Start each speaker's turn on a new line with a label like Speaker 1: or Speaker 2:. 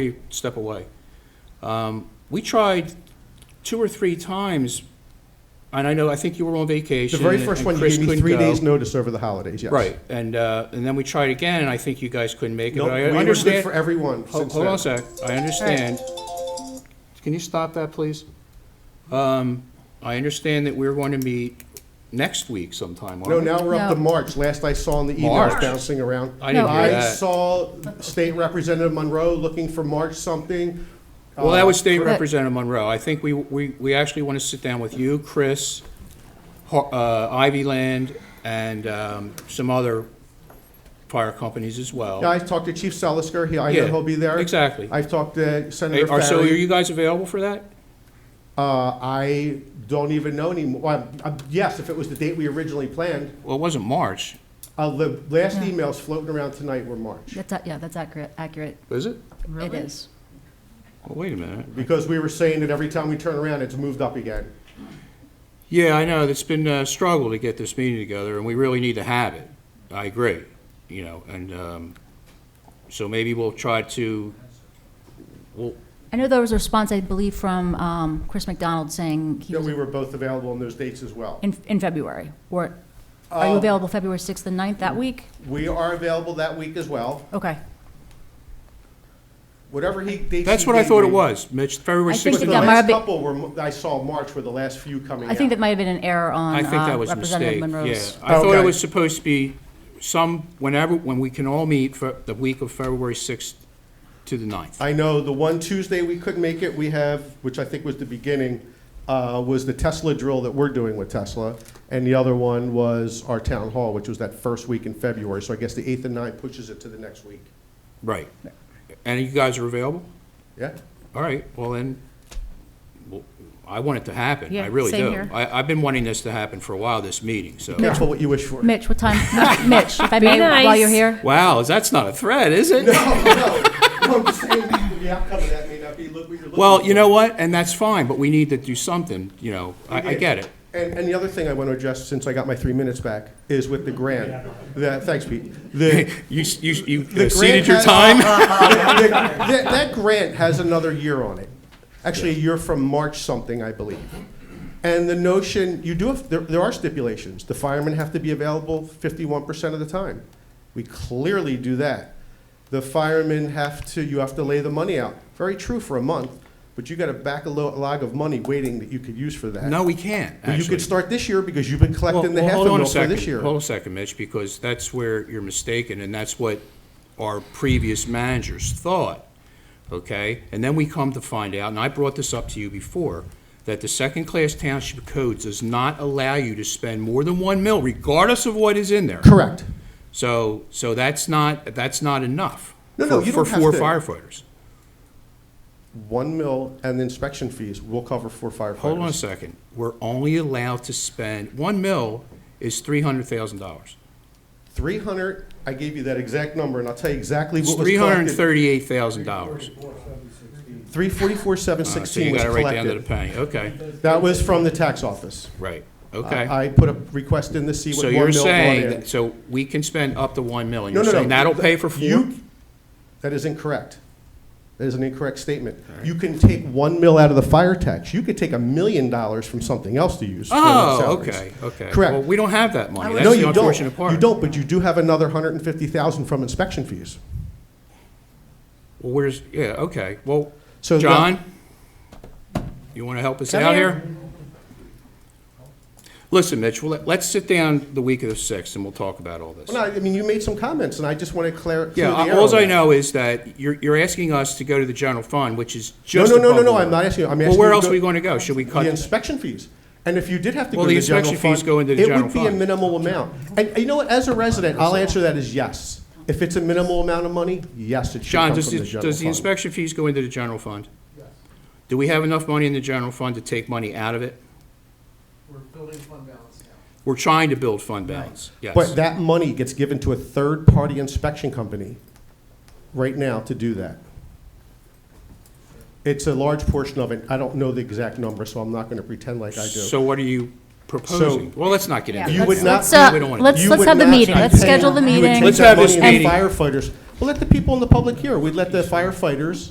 Speaker 1: you step away. Um, We tried two or three times, and I know, I think you were on
Speaker 2: The
Speaker 1: vacation.
Speaker 2: very
Speaker 1: and-
Speaker 2: first
Speaker 1: and
Speaker 2: one, you
Speaker 1: Chris
Speaker 2: gave me
Speaker 1: couldn't
Speaker 2: three
Speaker 1: go.
Speaker 2: days' notice over the holidays, yes.
Speaker 1: Right, and, uh, and then we tried again, and I think you guys couldn't make it,
Speaker 2: No,
Speaker 1: but I
Speaker 2: we were good
Speaker 1: understand.
Speaker 2: for everyone
Speaker 1: Ho-
Speaker 2: since
Speaker 1: Hold on a
Speaker 2: then.
Speaker 1: sec, I understand. Can you stop that, please? Um, I understand that we're going to meet next week sometime,
Speaker 2: No,
Speaker 1: aren't we?
Speaker 2: now we're up to
Speaker 3: No.
Speaker 2: March. Last I saw in the emails
Speaker 1: March?
Speaker 2: bouncing around.
Speaker 1: I didn't
Speaker 3: No.
Speaker 1: hear
Speaker 2: I
Speaker 1: that.
Speaker 2: saw State Representative Monroe looking for March something.
Speaker 1: Well, that was State
Speaker 3: But-
Speaker 1: Representative Monroe. I think we, we, we actually want to sit down with you, Chris, Ho- uh, Ivy Land, and, um, some other fire companies as well.
Speaker 2: Yeah, Uh, I talked to Chief Salisker, he, I know
Speaker 1: Yeah,
Speaker 2: he'll be there.
Speaker 1: Exactly.
Speaker 2: I've talked to
Speaker 1: Hey,
Speaker 2: Senator
Speaker 1: are- So are
Speaker 2: Farrelly.
Speaker 1: you guys available for that?
Speaker 2: Uh, I don't even know anymore. Well, I'm- Yes, if it was the date we originally planned.
Speaker 1: Well, it wasn't March,
Speaker 2: Uh, The last emails floating around tonight were March.
Speaker 3: That's, a- yeah, that's accurate, accurate.
Speaker 1: is it?
Speaker 3: It is.
Speaker 1: Well, wait a minute.
Speaker 2: Because we were saying that every time we turn around, it's moved up again.
Speaker 1: Yeah, I know, it's been a struggle to get this meeting together, and we really need to have it. I agree, you know, and, um, so maybe we'll try to, we'll,
Speaker 3: I know there was a response, I believe, from um, Chris McDonald saying he
Speaker 2: That
Speaker 3: was
Speaker 2: we were both available on those dates as well.
Speaker 3: in, in February. Or, are you
Speaker 2: Uh,
Speaker 3: available February 6th and 9th
Speaker 1: Mm.
Speaker 3: that week?
Speaker 2: We are available that week as well.
Speaker 3: Okay.
Speaker 2: Whatever he, dates
Speaker 1: that's
Speaker 2: he
Speaker 1: what I
Speaker 2: gave
Speaker 1: thought it
Speaker 2: me.
Speaker 1: was, Mitch, February
Speaker 3: I think
Speaker 1: sixth.
Speaker 2: But the
Speaker 3: that might
Speaker 2: last
Speaker 3: be-
Speaker 2: couple were, I saw March were the last few coming out.
Speaker 3: I think that might have been an error on
Speaker 1: I think that
Speaker 3: uh,
Speaker 1: was a
Speaker 3: Representative
Speaker 1: mistake, yeah.
Speaker 3: Monroe's.
Speaker 1: I thought it
Speaker 2: Okay.
Speaker 1: was supposed to be some, whenever, when we can all meet for the week of February sixth to the ninth.
Speaker 2: I know the one Tuesday we couldn't make it, we have, which I think was the beginning, uh, was the Tesla drill that we're doing with Tesla. And the other one was our town hall, which was that first week in February. So I guess the 8th and 9th pushes it to the next week.
Speaker 1: Right. And you guys are available?
Speaker 2: Yeah?
Speaker 1: All right, well then, well, I want it to happen, I
Speaker 3: Yeah,
Speaker 1: really do.
Speaker 3: same here.
Speaker 1: I, I've been wanting this to happen for a while, this meeting, so.
Speaker 2: Careful what you wish for.
Speaker 3: Mitch, what time, Mitch, if I may,
Speaker 4: nice.
Speaker 3: while you're here?
Speaker 1: Wow, that's not a threat, is it?
Speaker 2: I'm just saying, the outcome of that may not be look what you're looking
Speaker 1: Well, you
Speaker 2: for.
Speaker 1: know what, and that's fine, but we need to do something, you know, I, I
Speaker 2: did.
Speaker 1: get it.
Speaker 2: And, and the other thing I want to address, since I got my three minutes back, is with the grant. The- thanks, Pete. The,
Speaker 1: You, s- you, s- you
Speaker 2: the
Speaker 1: exceeded
Speaker 2: grant
Speaker 1: your
Speaker 2: has-
Speaker 1: time?
Speaker 2: the- the- that, that grant has another year on it. Actually, a year from March something, I believe. And the notion, you do, have- there, there are stipulations. The firemen have to be available fifty-one percent of the time. We clearly do that. The firemen have to, you have to lay the money out. Very true for a month, but you got a backlog of money waiting that you could use for that.
Speaker 1: No, we can't,
Speaker 2: Well, You
Speaker 1: actually.
Speaker 2: could start this year because you've been
Speaker 1: Well-
Speaker 2: collecting the
Speaker 1: well,
Speaker 2: half a
Speaker 1: hold on
Speaker 2: mil for
Speaker 1: second.
Speaker 2: this year.
Speaker 1: Hold on a second, Mitch, because that's where you're mistaken, and that's what our previous managers thought, okay? And then we come to find out, and I brought this up to you before, that the second-class township code does not allow you to spend more than one mil, regardless of what is in there.
Speaker 2: Correct.
Speaker 1: So, so that's not, that's not enough.
Speaker 2: No, no,
Speaker 1: for-
Speaker 2: you don't have
Speaker 1: For
Speaker 2: to.
Speaker 1: four firefighters.
Speaker 2: One mil and the inspection fees will cover for firefighters.
Speaker 1: Hold on a second. We're only allowed to spend, one mil is three hundred thousand dollars.
Speaker 2: Three hundred, I gave you that exact number, and I'll tell you exactly
Speaker 1: It's
Speaker 2: what was
Speaker 1: three hundred and
Speaker 2: collected.
Speaker 1: thirty-eight thousand dollars.
Speaker 2: Three forty-four, seven
Speaker 1: Uh, So you
Speaker 2: sixteen was
Speaker 1: got it right down to the
Speaker 2: collected.
Speaker 1: penny, okay,
Speaker 2: That was from the tax office.
Speaker 1: right, okay.
Speaker 2: I I put a request in to see what
Speaker 1: So
Speaker 2: one mil
Speaker 1: you're
Speaker 2: brought
Speaker 1: saying,
Speaker 2: in.
Speaker 1: that- so we can spend up to one million,
Speaker 2: No,
Speaker 1: you're
Speaker 2: no, no.
Speaker 1: saying that'll pay for four?
Speaker 2: You- That is incorrect. That is an incorrect statement. You can take one mil out of the fire tax. You could take a million dollars from something else to use. for
Speaker 1: Oh,
Speaker 2: salaries.
Speaker 1: okay, okay.
Speaker 2: Correct.
Speaker 1: Well, we don't have that money,
Speaker 2: No,
Speaker 1: that's the
Speaker 2: you don't.
Speaker 1: unfortunate part.
Speaker 2: You don't, but you do have another hundred and fifty thousand from inspection fees.
Speaker 1: Well, where's, yeah, okay, well,
Speaker 2: So the-
Speaker 1: John, you want to help us out here? Listen, Mitch, well, let- let's sit down the week of the 6th, and we'll talk about all this.
Speaker 2: Well, no, I mean, you made some comments, and I just want to clear, clear
Speaker 1: Yeah,
Speaker 2: the air
Speaker 1: I-
Speaker 2: on
Speaker 1: alls I
Speaker 2: that.
Speaker 1: know is that you're, you're asking us to go to the general fund, which is
Speaker 2: No,
Speaker 1: just
Speaker 2: no, no, no,
Speaker 1: above the
Speaker 2: no, I'm
Speaker 1: line.
Speaker 2: not asking you, I'm asking
Speaker 1: Well,
Speaker 2: you.
Speaker 1: where
Speaker 2: to
Speaker 1: else
Speaker 2: go-
Speaker 1: are we going to go? Should we cut?
Speaker 2: The inspection fees. And if you did have to go
Speaker 1: Well,
Speaker 2: to
Speaker 1: the
Speaker 2: the general
Speaker 1: inspection fees
Speaker 2: fund,
Speaker 1: go into the
Speaker 2: it
Speaker 1: general
Speaker 2: would be a
Speaker 1: fund.
Speaker 2: minimal amount. And and you know what, as a resident, I'll answer that as yes. If it's a minimal amount of money, yes, it should
Speaker 1: John,
Speaker 2: come
Speaker 1: does,
Speaker 2: from the
Speaker 1: the-
Speaker 2: general
Speaker 1: does the
Speaker 2: fund.
Speaker 1: inspection fees go into the general fund? Do we have enough money in the general fund to take money out of it?
Speaker 5: We're building fund balance now.
Speaker 1: We're trying to build fund balance, yes.
Speaker 2: But that money gets given to a third-party inspection company right now to do that. It's a large portion of it. I don't know the exact number, so I'm not going to pretend like I do.
Speaker 1: So what are you proposing? Well, let's not get into
Speaker 3: Yeah,
Speaker 1: that.
Speaker 2: You would
Speaker 3: let's-
Speaker 1: now.
Speaker 2: not, be-
Speaker 3: let's, uh,
Speaker 1: We don't wanna-
Speaker 3: let's-
Speaker 2: you would
Speaker 3: have the
Speaker 2: not
Speaker 3: meeting.
Speaker 2: be
Speaker 3: Let's
Speaker 2: paying-
Speaker 3: schedule the
Speaker 2: you would
Speaker 3: meeting.
Speaker 2: take
Speaker 1: Let's have
Speaker 2: that
Speaker 1: this
Speaker 2: money and
Speaker 1: meeting.
Speaker 2: Firefighters, well, let the people in the public hear. We'd let the firefighters